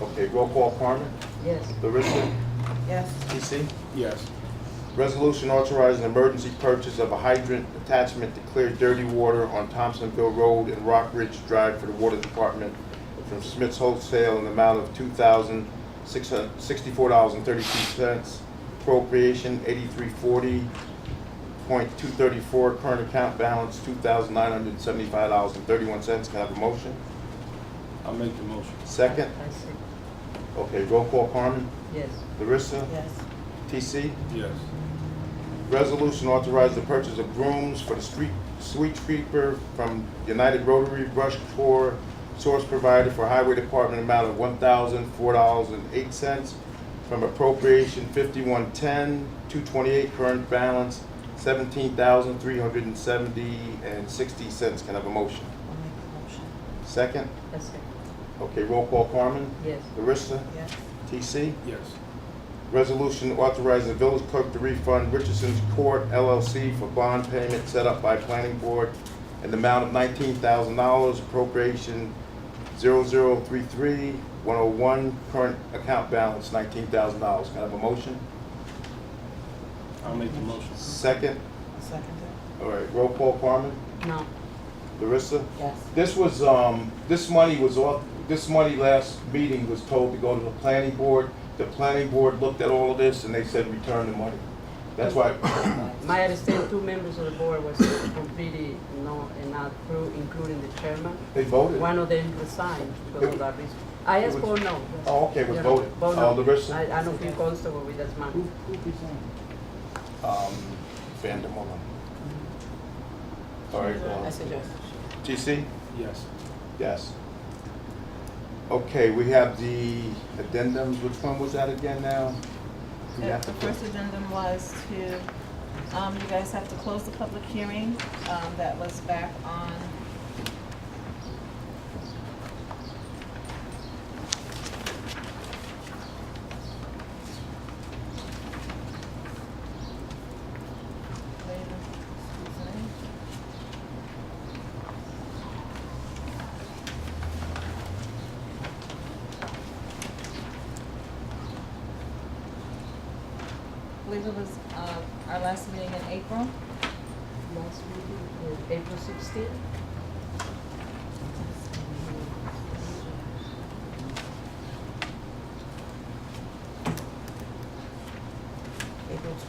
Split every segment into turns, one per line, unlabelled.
Okay, roll call, Carmen?
Yes.
Larissa?
Yes.
TC?
Yes.
Resolution authorizing emergency purchase of a hydrant attachment to clear dirty water on Thompsonville Road and Rock Ridge Drive for the Water Department from Smith's Wholesale in the amount of two thousand six hundred sixty-four dollars and thirty-two cents. Appropriation eighty-three forty point two thirty-four, current account balance two thousand nine hundred seventy-five dollars and thirty-one cents. Can I have a motion?
I'll make the motion.
Second?
I see.
Okay, roll call, Carmen?
Yes.
Larissa?
Yes.
TC?
Yes.
Resolution authorized the purchase of brooms for the street, street sweeper from United Rotary Brush Corps, source provider for Highway Department, amount of one thousand, four dollars and eight cents, from appropriation fifty-one ten, two twenty-eight, current balance seventeen thousand, three hundred and seventy and sixty cents. Can I have a motion?
I'll make the motion.
Second?
I see.
Okay, roll call, Carmen?
Yes.
Larissa?
Yes.
TC?
Yes.
Resolution authorizing the village clerk to refund Richardson's Court LLC for bond payment set up by planning board in the amount of nineteen thousand dollars, appropriation 0033-101, current account balance nineteen thousand dollars. Can I have a motion?
I'll make the motion.
Second?
Second
All right, roll call, Carmen?
No.
Larissa?
Yes.
This was, um, this money was off, this money last meeting was told to go to the planning board. The planning board looked at all of this and they said, return the money. That's why,
My understanding, two members of the board was completely no, and not through, including the chairman.
they voted.
One of them resigned because of that reason. I asked for no.
Oh, okay, it was
You know,
voted.
vote
Oh,
no.
the rest,
I, I don't feel comfortable with that
Who,
man.
who presented?
um, Vandermolen. All right, uh,
yes.
TC?
Yes.
Yes. Okay, we have the addendums, which one was that again now? We
The
have to
Uh, the first addendum was to, um, you guys have to close the public hearing, um, that was back on. Wait a- excuse me. I believe it was, uh, our last meeting in April.
Last meeting, uh, April sixteenth?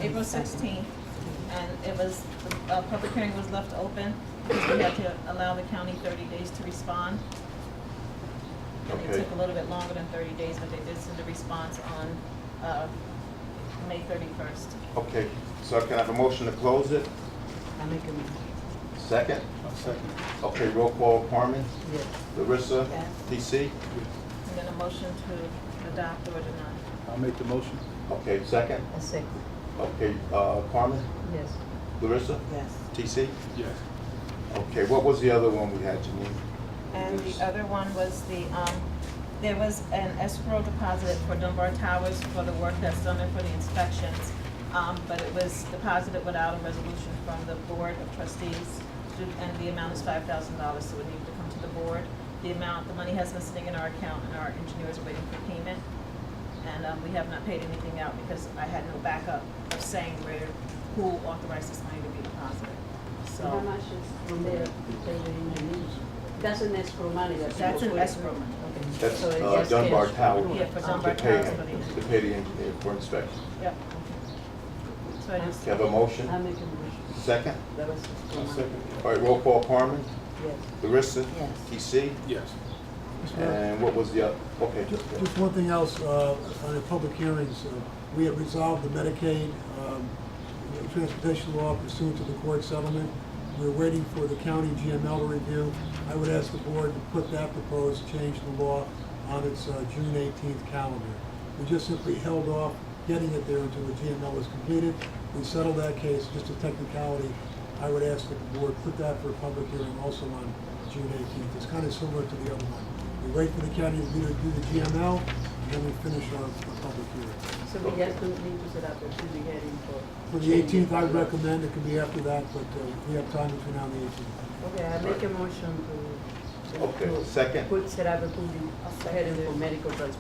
April sixteenth, and it was, the uh, public hearing was left open, because we had to allow the county thirty days to respond. And it
Okay.
took a little bit longer than thirty days, but they did send a response on, uh, May thirty-first.
Okay, so can I have a motion to close it?
I make a motion.
Second?
I'll second.
Okay, roll call, Carmen?
Yes.
Larissa?
Yes.
TC?
And then a motion to adopt or deny.
I'll make the motion.
Okay, second?
I second.
Okay, uh, Carmen?
Yes.
Larissa?
Yes.
TC?
Yes.
Okay, what was the other one we had, Janine?
And the other one was the, um, there was an escrow deposit for Dunbar Towers for the work that's done and for the inspections. Um, but it was deposited without a resolution from the Board of Trustees, and the amount is five thousand dollars, so it needed to come to the board. The amount, the money has been sitting in our account, and our engineer is waiting for payment. And, um, we have not paid anything out because I had no backup of saying where, who authorized this money to be deposited. So.
How much is from there, That's an escrow money that's.
That's an escrow money.
Okay.
That's
So it
uh,
gets
Dunbar
cashed.
Tower.
Yeah, for
to
Dunbar
pay-
Tower, somebody-
To pay the engineer for inspection.
Yep. So I just,
Can I have a motion?
I make a motion.
Second?
That was escrow
I'll
money.
second.
All right, roll call, Carmen?
Yes.
Larissa?
Yes.
TC?
Yes.
Mr. Mayor,
And what was the other, okay.
Uh, ju- Just one thing else, uh, on the public hearings, uh, we have resolved the Medicaid um, transportation law pursuant to the court settlement. We're waiting for the county GML to review. I would ask the board to put that proposed change in the law on its uh, June 18th calendar. We just simply held off getting it there until the GML was completed. We settled that case, just a technicality. I would ask that the board put that for a public hearing also on June 18th. It's kind of similar to the other one. We wait for the county to do do the GML, and then we finish our our public hearing.
So we just don't need to set up a public hearing for.
For the 18th, I recommend, it can be after that, but uh, we have time between now and the 18th.
Okay, I make a motion to.
Okay,
to
second?
Put, set up a public hearing for medical transportation.